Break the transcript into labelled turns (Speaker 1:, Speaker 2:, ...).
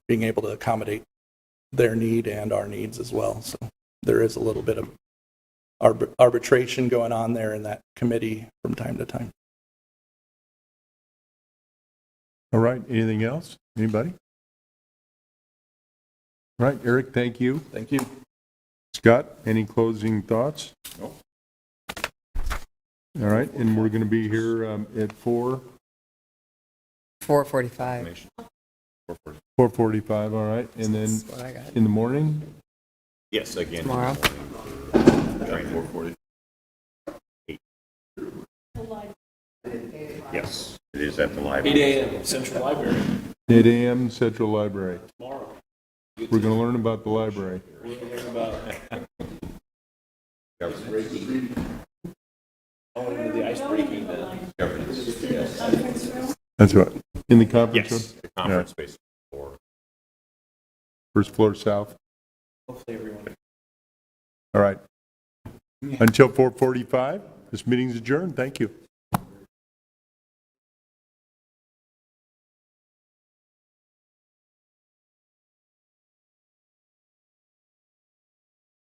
Speaker 1: being able to accommodate their need and our needs as well. So there is a little bit of arb- arbitration going on there in that committee from time to time.
Speaker 2: All right, anything else? Anybody? All right, Eric, thank you.
Speaker 1: Thank you.
Speaker 2: Scott, any closing thoughts? No. All right, and we're going to be here um, at 4,
Speaker 3: 4:45.
Speaker 2: 4:45, all right? And then
Speaker 3: That's what I got
Speaker 2: in the morning?
Speaker 4: Yes, again.
Speaker 3: tomorrow.
Speaker 4: Four forty. Yes, it is at the library.
Speaker 5: 8 a.m. Central Library.
Speaker 2: 8 AM, Central Library. We're going to learn about the library. That's right. In the conference room?
Speaker 4: Yes, the conference space. Or
Speaker 2: First floor south? Hopefully everyone. All right. Until 4:45, this meeting's adjourned. Thank you.